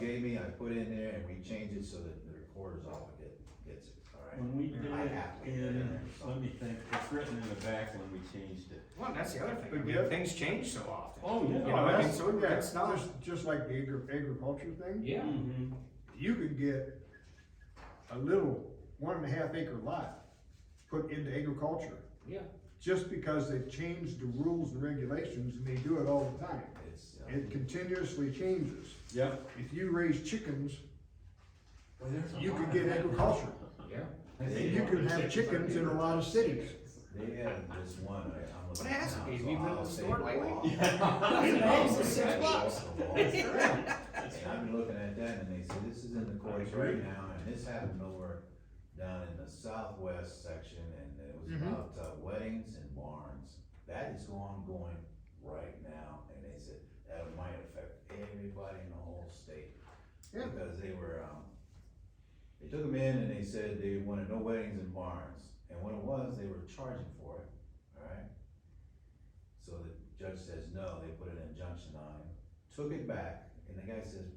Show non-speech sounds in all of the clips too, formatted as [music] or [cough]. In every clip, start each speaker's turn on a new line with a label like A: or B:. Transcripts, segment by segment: A: gave me, I put in there and we changed it so that the recorder's all that get- gets it, alright?
B: When we did
A: I
B: it
A: have to.
B: in, let me think, it's written in the back when we changed it.
C: Well, that's the other thing, I mean,
D: Yeah.
C: things change so often.
B: Oh, yeah.
C: You know,
D: Oh,
C: I mean,
D: that's-
C: so
D: yeah,
C: it's not,
D: Just, just like the agri- agriculture thing,
C: yeah,
D: Mm-hmm.
B: Mhm.
D: you could get a little one and a half acre lot put into agriculture,
C: yeah.
D: just because they've changed the rules and regulations, and they do it all the time.
A: It's, uh,
D: It continuously changes.
B: Yep.
D: If you raise chickens,
A: well, there's a
D: you
A: lot
D: could
A: of
D: get
A: that.
D: agriculture,
C: Yeah.
D: and you could have chickens in a lot of cities.
A: They have this one, I- I'm looking.
C: What has it
A: now, so
C: been? You've been to
A: I'll
C: the
A: say
C: store lately?
B: [laughs]
A: raw. [laughs]
C: Eggs are six
A: Yeah.
C: bucks.
A: And I've been looking at that and they say, this is in the courts right now, and this happened over down in the southwest section, and it was
C: Mhm.
A: about uh, weddings and barns. That is ongoing right now, and they said that might affect everybody in the whole state.
D: Yeah.
A: Because they were, um, they took them in and they said they wanted no weddings and barns, and what it was, they were charging for it, alright? So the judge says no, they put an injunction on him, took it back, and the guy says,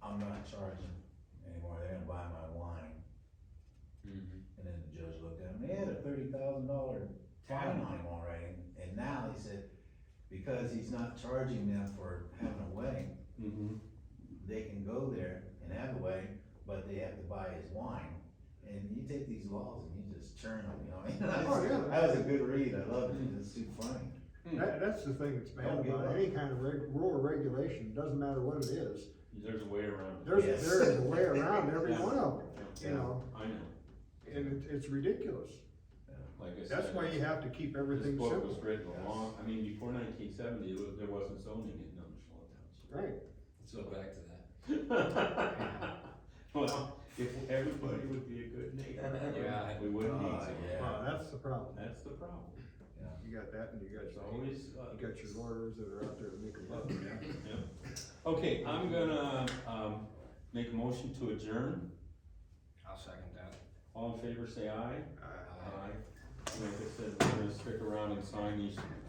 A: I'm not charging anymore, they're gonna buy my wine. And then the judge looked at him, they had a thirty thousand dollar fine on him already, and now he said, because he's not charging them for having a wedding,
D: Mm-hmm.
B: Mhm.
A: they can go there and have a wedding, but they have to buy his wine. And you take these laws and you just churn them, you know, what I mean? [laughs] That was-
D: Oh, yeah.
A: that was a good read, I loved it, it's too funny.
D: That, that's the thing that's bad
A: Don't give
D: about
A: up.
D: any kind of reg, rule or regulation, doesn't matter what it is,
B: There's a way around it.
D: there's,
A: Yes.
D: there is a way around every
B: Yeah.
D: one of them, you know,
B: I know,
D: and it, it's ridiculous.
B: like I said.
D: That's why you have to keep everything
B: This book was
D: simple,
B: written long, I mean, before nineteen seventy, it was, there wasn't zoning in Numbershall Township.
D: right?
E: So back to that.
B: [laughs] Well, if everybody would be a good
D: [laughs]
B: neighbor.
E: Yeah.
B: We wouldn't need
D: Oh,
A: Ah,
B: zoning.
A: yeah.
D: Well, that's the problem.
B: That's the problem.
D: You got that and you got,
B: There's
D: you
B: always, uh,
D: got your lawyers that are out there to make a buck.
B: Yeah. Okay, I'm gonna, um, make a motion to adjourn.
C: [laughs] I'll second that.
B: All in favor, say aye.
D: Uh,
B: Aye. Like I said, we're gonna stick around and sign these